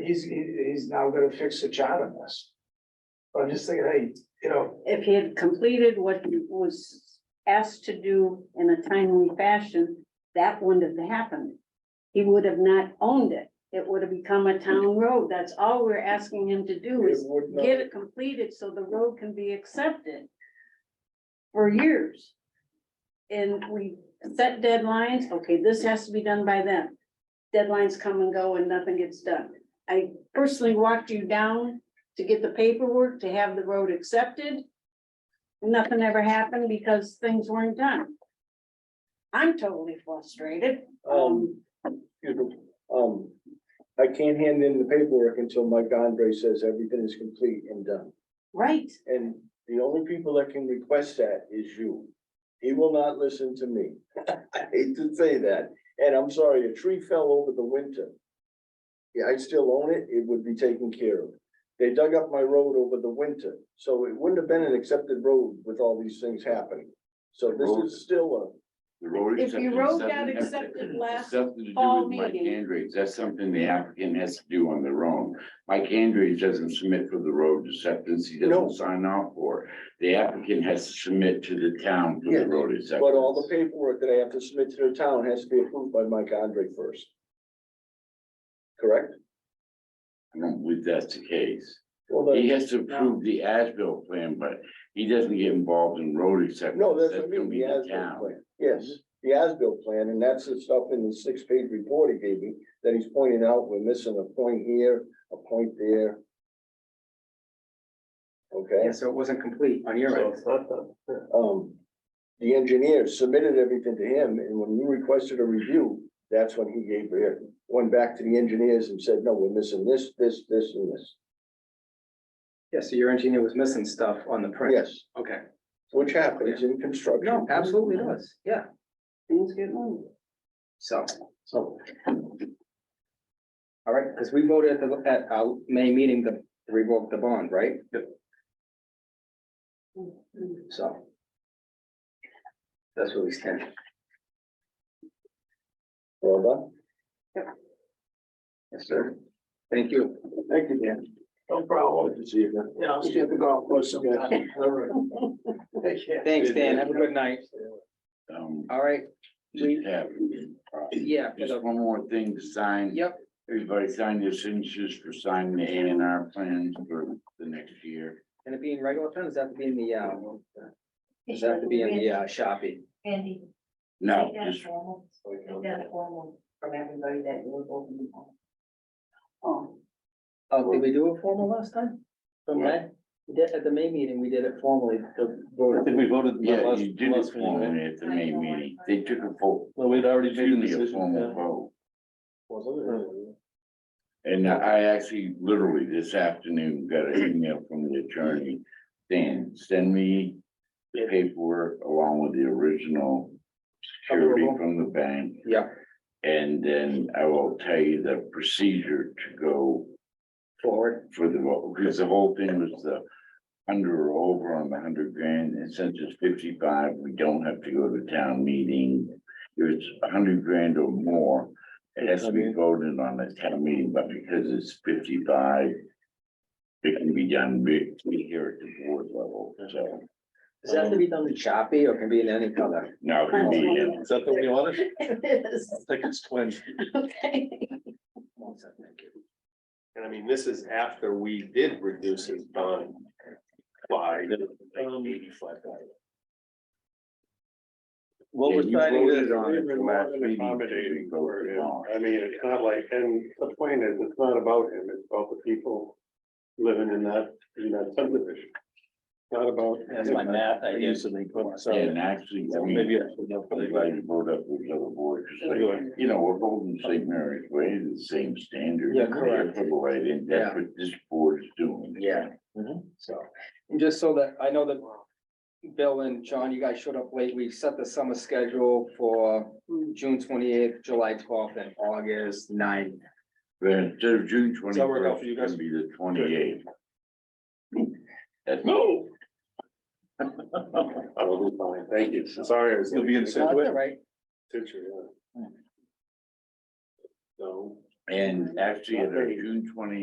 he's, he- he's now gonna fix the chart on this. I'm just thinking, hey, you know, if he had completed what he was asked to do in a timely fashion, that wouldn't have happened. He would have not owned it. It would have become a town road. That's all we're asking him to do it is would not, get it completed so the road can be accepted for years. And we set deadlines, okay, this has to be done by then. Deadlines come and go and nothing gets done. I personally walked you down to get the paperwork, to have the road accepted. Nothing ever happened because things weren't done. I'm totally frustrated. Um, excuse me, um, I can't hand in the paperwork until Mike Andre says everything is complete and done. Right, And the only people that can request that is you. He will not listen to me. I hate to say that, and I'm sorry, a tree fell over the winter. Yeah, I still own it, it would be taken care of. They dug up my road over the winter, so it wouldn't have been an accepted road with all these things happening. So this is still The road. If you acceptance, wrote something that has- accepted last something to do with fall Mike meeting. Andrews, that's something the applicant has to do on their own. Mike Andrews doesn't submit for the road acceptance, he No. doesn't sign off for. it. The applicant has to submit to the town for Yeah, the road a, acceptance. but all the paperwork that I have to submit to the town has to be approved by Mike Andre first. Correct? I don't believe that's the case. Well, He then, has to approve the as-built plan, but he doesn't get involved in road acceptance. no, that's what I gonna mean, be the the as-built town. Mm-hmm. plan, yes, the as-built plan, and that's the stuff in the six-page report he gave me, that he's pointing out, we're missing a point here, a point there. Okay? Yeah, so it wasn't complete on your so end. it's not done. Yeah. um, the engineer submitted everything to him, and when you requested a review, that's when he gave it, went back to the engineers and said, no, we're missing this, this, this, and this. Yeah, so your engineer was missing stuff on the print. Yes, Okay. which happens in construction. No, absolutely does. Yeah, things get moved. so. So. All right, because we voted at the, at our May meeting to revoke the bond, right? So. That's where we stand. Well Yes, sir. Thank you. done. Thank you, Dan. No problem. Good to see you again. Yeah, I'll stay at the golf course sometime. All right. Take care. Thanks, Dan. Have a good night. Um, All right, just have- yeah, for Just the- one more thing to sign. yep, Everybody sign your signatures for signing the A and R plans for the next year. and it being regular time, does that have to be in the, uh, does that have to be in the, uh, Shopee? Andy, No, take that just formal, take that formal from everybody that was open. Oh, Oh, did we do it formal last time? From May? We did, at the May meeting, we did it formally. the vote. think we voted. the Yeah, last- you did it last meeting, right? formally at the May meeting. They took a full, Well, we'd already made a excuse me, a decision. formal yeah. vote. Well, And I actually literally this afternoon got an email from the attorney saying, send me the paperwork along with the original security Approval. from the bank. Yeah, And then I will tell you the procedure to go forward. for the, vote, because the whole thing was the under or over on the hundred grand, and since it's fifty-five, we don't have to go to town meeting. If it's a hundred grand or more, it has to be voted on at town meeting, but because it's fifty-five, it can be done be- be here at the board level, so Does that have to be done in Shopee or can be in any color? now it can be, uh, Is that the way you want it? It is, I think it's twins. okay. One second, thank you. And I mean, this is after we did reduce his bond by Um, eighty-five thousand. What Yeah, we're you signing voted is, on it the last meeting, Accommodating we for voted him. on. I mean, it's not like, and the point is, it's not about him, it's about the people living in that, in that subdivision. Not about. that's my math, I guess. and actually, I mean, Maybe I should know for I'm the- glad you brought up those other boards, 'cause like, you know, we're holding St. Mary's Way to the same standard. Yeah, correct. They're for the way, and that's what this board is doing. Yeah. So, and just so that, I know that Bill and John, you guys showed up late. We set the summer schedule for June twenty-eighth, July twelfth, and August 9th. But instead of June Does that work out twenty-first, for you it's guys? gonna be the twenty-eighth. That's, No. I will be fine, thank you, sorry, I was. You'll be in That's Situate. it, right? So. and actually, at our June twenty